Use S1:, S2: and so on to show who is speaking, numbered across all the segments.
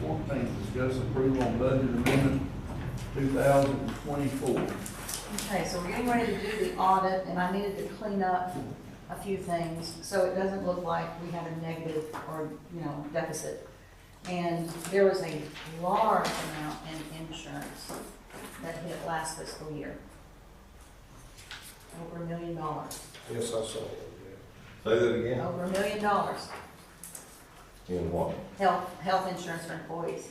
S1: fourteenth, discuss approval on budget amendment two thousand twenty-four.
S2: Okay, so we're getting ready to do the audit, and I needed to clean up a few things, so it doesn't look like we have a negative or, you know, deficit. And there was a large amount in insurance that hit last fiscal year. Over a million dollars,
S3: Yes, I saw it.
S4: Say that again.
S2: over a million dollars,
S4: In what?
S2: health, health insurance for employees,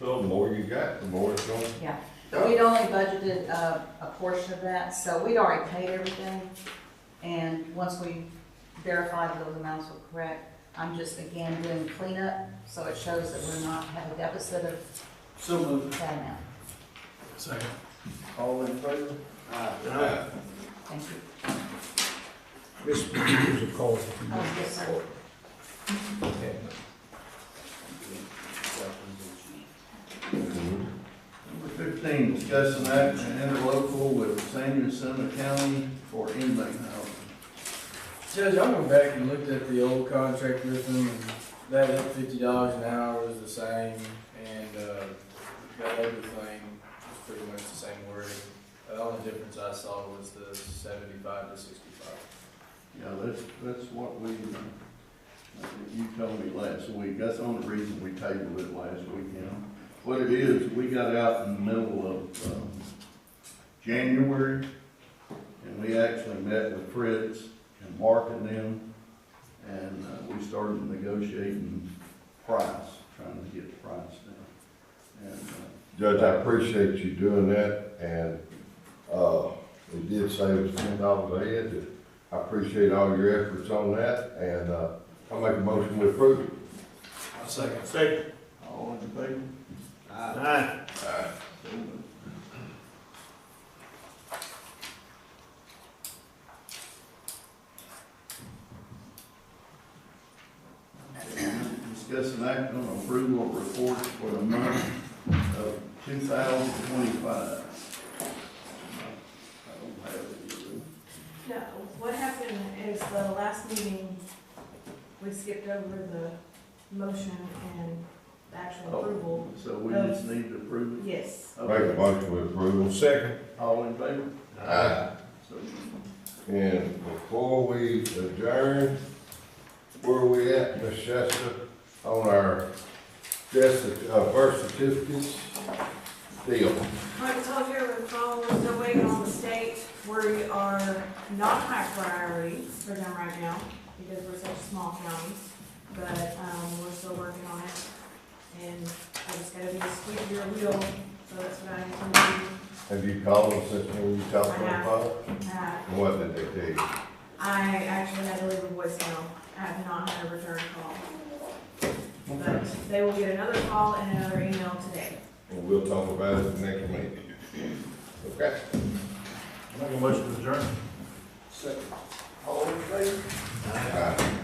S4: So the more you got, the more it's gonna.
S2: yeah. But we'd only budgeted a, a portion of that, so we'd already paid everything. And once we verified those amounts were correct, I'm just again doing cleanup, so it shows that we're not, have a deficit of
S3: So moved.
S2: that amount.
S5: Second.
S1: All in favor?
S3: Aye.
S2: Thank you.
S3: Ms. McHughes will call.
S2: Oh, yes, sir.
S1: Number fifteen, discuss an action interlocal with Sanderson County for inmate housing.
S6: Judge, I went back and looked at the old contract with them, and that up fifty dollars an hour was the same, and, uh, that other thing was pretty much the same wording. The only difference I saw was the seventy-five to sixty-five.
S1: Yeah, that's, that's what we, uh, you told me last week, that's the only reason we tabled it last week, you know. What it is, we got out in the middle of, um, January, and we actually met with Fritz and Mark and them, and uh, we started negotiating price, trying to get the price down. And, uh,
S4: Judge, I appreciate you doing that, and, uh, it did save us ten dollars a head. and I appreciate all your efforts on that, and, uh, I make a motion to approve.
S3: I'll second.
S5: Second.
S1: All in favor?
S5: Aye.
S1: Discuss an act on approval of reports for the month of two thousand twenty-five. I don't have it either.
S7: No, what happened is the last meeting, we skipped over the motion and the
S4: Oh.
S7: actual approval.
S1: So we just need to approve it?
S7: Yes.
S4: Make a motion to approve.
S3: Second.
S1: All in favor?
S4: Aye.
S1: So,
S4: And before we adjourn, where are we at, Ms. Shasta, on our death, cer- uh, birth certificates deal?
S7: Like I told you over the phone, we're still waiting on the state. We are not high priority for them right now because we're such a small county. But, um, we're still working on it. And I just gotta be a squeak your wheel, so that's what I intend to
S4: Have you called them since when you talked on
S7: I
S4: the
S7: have.
S4: phone?
S7: do. Uh,
S4: And what did they tell you?
S7: I actually had to leave a voicemail. I have not had a return call. But they will get another call and another email today.
S4: And we'll talk about it next meeting. Okay?
S5: Make a motion to adjourn.
S1: all in favor?
S4: Aye.